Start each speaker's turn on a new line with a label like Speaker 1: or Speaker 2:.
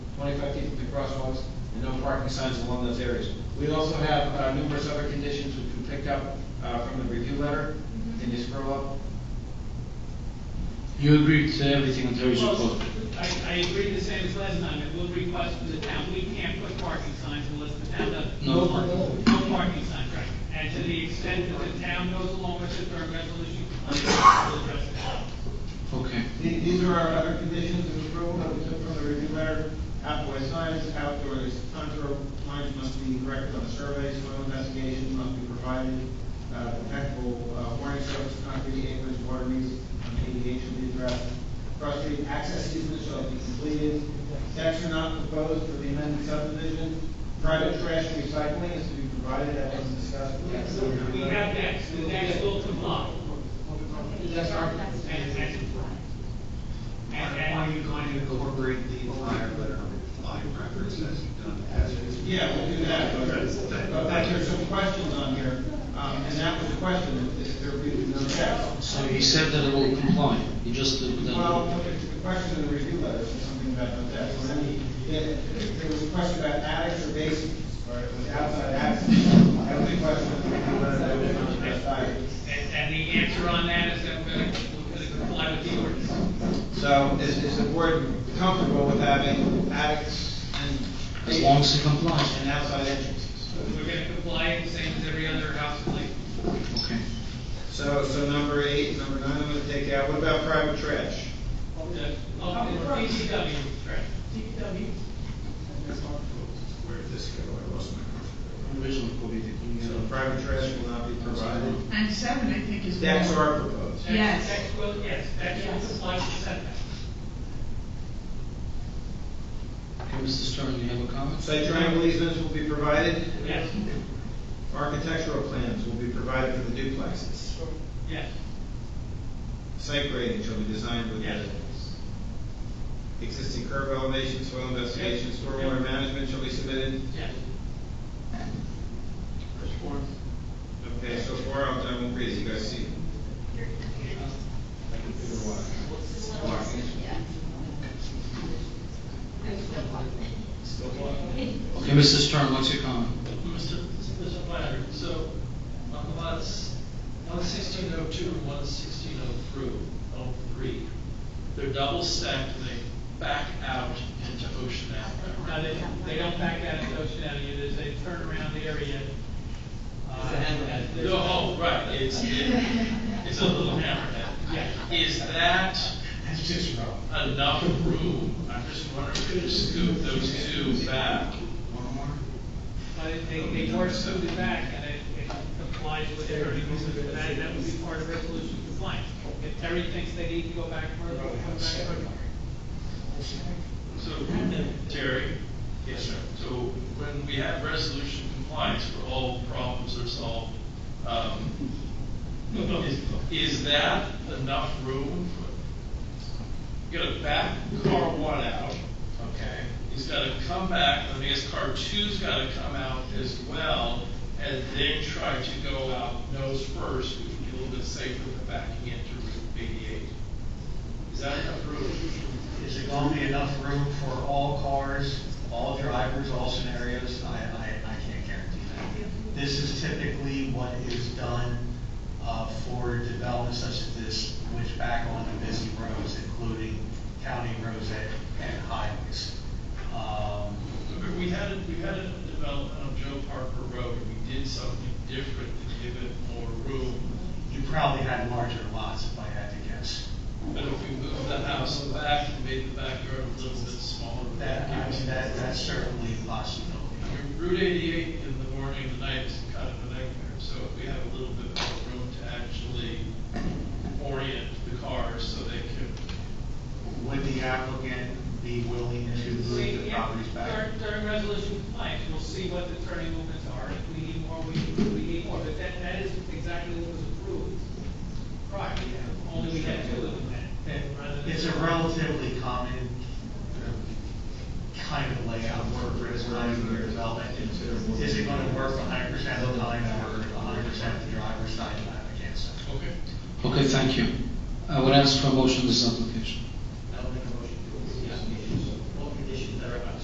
Speaker 1: 25 feet from the crosswalks, and no parking signs along those areas. We also have uh, numerous other conditions which we picked up uh, from the review letter. Can you scroll up?
Speaker 2: You agree to everything until you
Speaker 3: Well,
Speaker 2: close.
Speaker 3: I, I agree the same as last time, it will request from the town, we can't put parking signs unless the town does.
Speaker 2: No.
Speaker 3: No parking sign, right, and to the extent that the town goes along with the current resolution, we'll address it.
Speaker 2: Okay.
Speaker 4: These these are our other conditions of approval that we took from the review letter. Outdoor signs, outdoor contour lines must be corrected on the survey, soil investigations must be provided, uh, impeccable uh, warning strokes, concrete aprons, water needs, on ADA should be addressed. Cross street access easement shall be completed. Decks are not proposed for the amended subdivision. Private trash recycling is to be provided, that was discussed.
Speaker 3: We have decks, the decks will comply,
Speaker 5: That's our.
Speaker 3: and, and, and,
Speaker 6: Why are
Speaker 3: and
Speaker 6: you going to incorporate the entire letter of live records as you've done as is?
Speaker 4: Yeah, we'll do that, but, but
Speaker 6: That-
Speaker 4: there's some questions on here, um, and that was the question, if- if there be no checks.
Speaker 2: So he said that it will comply, he just, that it
Speaker 4: Well,
Speaker 2: will-
Speaker 4: the question in the review letter was something about the deck, and then he- it- there was a question about attics or basements, or it was outside access. That was the question in the review letter that was not addressed either.
Speaker 3: and, and the answer on that is that we're gonna, we're gonna comply with the ordinance.
Speaker 4: So is, is the board comfortable with having attics and
Speaker 2: as long as it complies.
Speaker 4: and outside entrances?
Speaker 3: We're gonna comply, same as every other house in Lakeville.
Speaker 2: Okay.
Speaker 4: So, so number eight, number nine, I'm gonna take out. What about private trash?
Speaker 3: The- Oh, the DPW, right.
Speaker 6: Where did this go? I lost my question.
Speaker 4: So private trash will not be provided.
Speaker 5: And seven, I think, is.
Speaker 4: Decks
Speaker 5: more.
Speaker 4: are proposed.
Speaker 3: That-
Speaker 5: Yes.
Speaker 3: That's what, yes, that's what complies with setbacks.
Speaker 2: Okay, Mr. Stern, you have a comment?
Speaker 4: Site triangle easements will be provided.
Speaker 3: Yes,
Speaker 4: Architectural plans will be provided for the duplexes.
Speaker 3: yes,
Speaker 4: Site grading shall be designed with
Speaker 3: Yes.
Speaker 4: the existing curb elevation, soil investigation,
Speaker 3: Yes.
Speaker 4: stormwater management shall be submitted.
Speaker 3: yes.
Speaker 4: Okay, so far I'll, I won't read it. You guys see? it.
Speaker 2: Okay, Mr. Stern, what's your comment?
Speaker 7: Mr. Mr. Flannery, so on lots, one sixteen oh two and one sixteen oh three, oh three, they're double stacked and they back out into Ocean Avenue.
Speaker 3: No, they, they don't back out of Ocean Avenue, there's a turnaround area. uh, at the-
Speaker 7: No, oh, right, it's, it's a little hammerhead.
Speaker 3: Yeah.
Speaker 7: Is that enough room? I'm just wondering if you could scoop those two back.
Speaker 3: But they, they were scooted back and it it complies with their, that, that would be part of resolution compliance. If Terry thinks they need to go back further, we'll come back further.
Speaker 7: So, Terry? Yes, sir. So when we have resolution compliance where all problems are solved, um, is, is that enough room? for- You gotta back car one out, okay? He's gotta come back, and I guess car two's gotta come out as well, and then try to go out nose first, which would be a little bit safer than backing into Route eighty-eight. Is that enough room?
Speaker 6: Is there going to be enough room for all cars, all drivers, all scenarios? I, I, I can't guarantee that. This is typically what is done uh, for developments such as this, which back on the busy roads, including county roads and- and highways. Um,
Speaker 7: Remember, we had, a we had a development on Joe Parker Road, and we did something different to give it more room.
Speaker 6: You probably had larger lots, if I had to guess.
Speaker 7: But if we moved the house back and made the backyard a little bit smaller. we
Speaker 6: That, I
Speaker 7: could-
Speaker 6: mean, that, that's certainly a possibility.
Speaker 7: I mean, Route eighty-eight in the morning and the night is kind of a nightmare, so if we have a little bit more room to actually orient the cars so they can
Speaker 6: Would the applicant be willing to move the
Speaker 3: Yeah,
Speaker 6: properties back?
Speaker 3: During, during resolution compliance, we'll see what the turning movements are, if we need more, we, we need more, but that, that is exactly what was approved. Prior, yeah, only we had two of them then. rather than-
Speaker 6: It's a relatively common uh, kind of layout for a residential development. Is it gonna work hundred percent of the time or hundred percent of the driver's side? I can't say.
Speaker 7: Okay.
Speaker 2: Uh, Okay, thank you. I would ask for a motion on this application.